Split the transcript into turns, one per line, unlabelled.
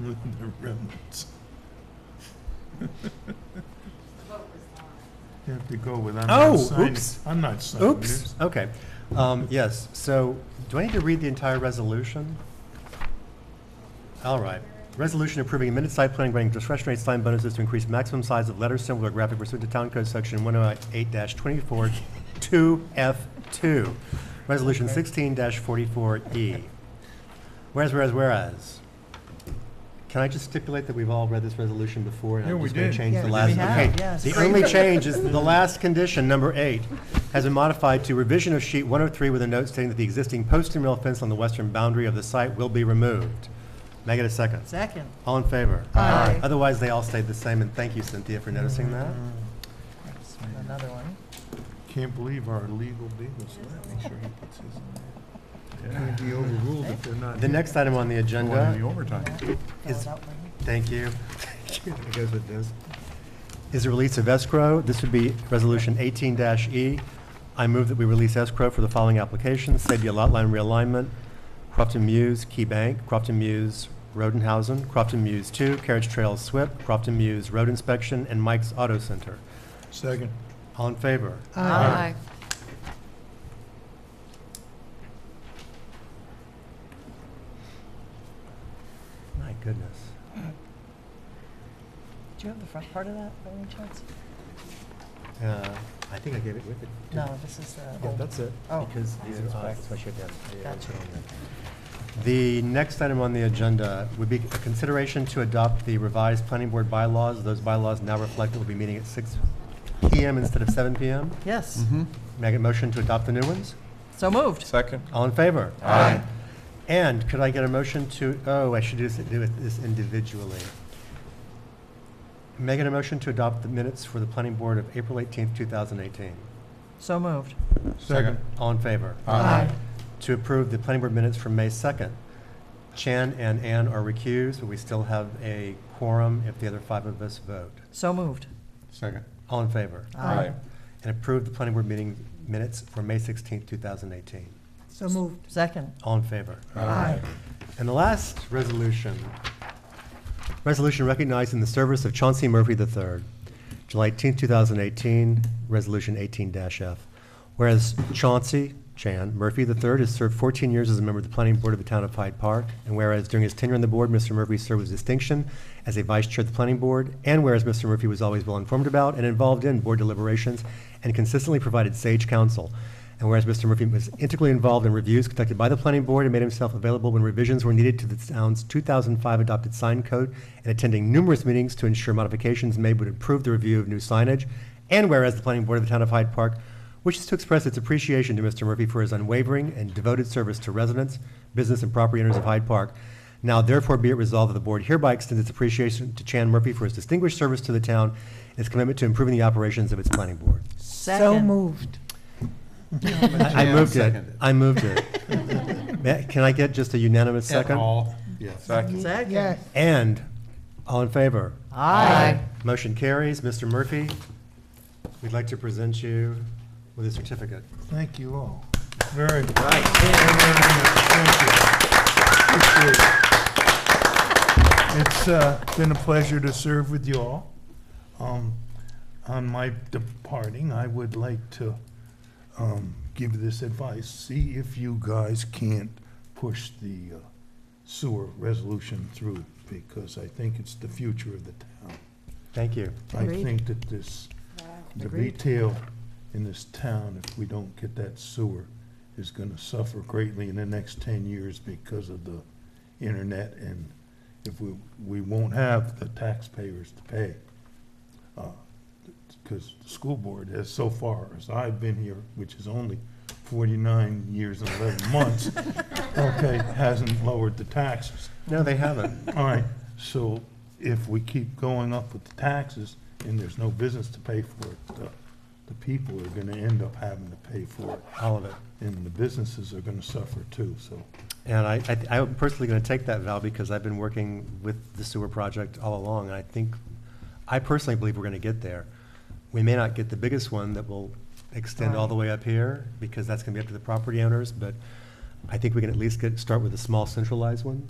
with the remnants. You have to go with, I'm
Oh,
not signing,
oops.
I'm not signing
Oops,
this.
okay. Um, Yes, so do I need to read the entire resolution? All right. Resolution approving amended site plan granting discretionary sign bonuses to increase maximum size of letters, symbol, or graphic pursuant to Town Code Section 108-24-2F2. Resolution 16-44E. E. Whereas, whereas, whereas. Can I just stipulate that we've all read this resolution before? and I'm
Yeah, we
just gonna
did.
change
Yeah,
the
we
last-
have,
okay.
yes.
The only change is the last condition, number eight, has been modified to revision of sheet 103 with a note stating that the existing post and rail fence on the western boundary of the site will be removed. May I get a second?
Second.
All in favor?
Aye.
Otherwise, they all stayed the same, and thank you, Cynthia, for noticing that.
Another one.
Can't believe our legal beagles left. Make sure he puts his in there. Can't be overruled if they're not.
The next item on the agenda,
overtime.
Is-
Fill it out later.
thank you,
I guess it does.
is the release of escrow. This would be Resolution 18-E. I move that we release escrow for the following applications: Sabia Lot Line Realignment, Crofton Muse Key Bank, Crofton Muse Rodenhausen, Crofton Muse 2, Carriage Trail SWIP, Crofton Muse Road Inspection, and Mike's Auto Center.
Second.
All in favor?
Aye.
My goodness.
Do you have the front part of that by any chance?
Uh, I think I gave it with it. didn't I?
No, this is the
Yeah,
old.
that's it.
Oh.
Because these
It's
are odd,
back.
so I should have- yeah, I
Gotcha.
put it on there. The next item on the agenda would be a consideration to adopt the revised planning board bylaws. Those bylaws now reflect that we'll be meeting at six PM instead of seven PM.
Yes,
May I get a motion to adopt the new ones?
so moved.
Second?
All in favor?
Aye.
And could I get a motion to, oh, I should do this- do it this individually. May I get a motion to adopt the minutes for the planning board of April eighteenth, two thousand eighteen?
So moved.
Second.
All in favor?
Aye.
to approve the planning board minutes from May 2nd. Chan and Ann are recused, but we still have a quorum if the other five of us vote.
So moved.
Second.
All in favor?
Aye.
And approve the planning board meeting minutes for May 16th, 2018.
So moved. Second.
All in favor?
Aye.
And the last resolution, resolution recognizing the service of Chauncey Murphy III, July 18, 2018, Resolution 18-F. Whereas Chauncey Chan Murphy III has served 14 years as a member of the Planning Board of the Town of Hyde Park, and whereas during his tenure on the board, Mr. Murphy served with distinction as a vice chair of the Planning Board, and whereas Mr. Murphy was always well-informed about and involved in board deliberations and consistently provided sage counsel, and whereas Mr. Murphy was integrally involved in reviews conducted by the planning board and made himself available when revisions were needed to the town's 2005 adopted sign code and attending numerous meetings to ensure modifications made would improve the review of new signage, and whereas the planning board of the town of Hyde Park wishes to express its appreciation to Mr. Murphy for his unwavering and devoted service to residents, business, and property owners of Hyde Park, now therefore be it resolved that the board hereby extends its appreciation to Chan Murphy for his distinguished service to the town and his commitment to improving the operations of its planning board.
So moved.
I I moved it. I moved it. Ma- Can I get just a unanimous second?
All, yes.
Second?
Second.
And, all in favor?
Aye.
Motion carries. Mr. Murphy, we'd like to present you with a certificate.
Thank you all. Very. Nice. It's uh, been a pleasure to serve with you all. Um, On my departing, I would like to um, give this advice. See if you guys can't push the uh, sewer resolution through, because I think it's the future of the town.
Thank you.
I
Agreed.
think that this, the
Agreed.
retail in this town, if we don't get that sewer, is gonna suffer greatly in the next ten years because of the internet, and if we, we won't have the taxpayers to pay. uh, Because the school board has so far, as I've been here, which is only forty-nine years and eleven months, okay, hasn't lowered the taxes.
No, they haven't.
All right, so if we keep going up with the taxes and there's no business to pay for it, the, the people are gonna end up having to pay for it,
All of it.
and the businesses are gonna suffer too, so.
And I, I- I'm personally going to take that, Val, because I've been working with the sewer project all along, and I think, I personally believe we're going to get there. We may not get the biggest one that will extend all the way up here, because that's going to be up to the property owners, but I think we can at least get, start with a small centralized one.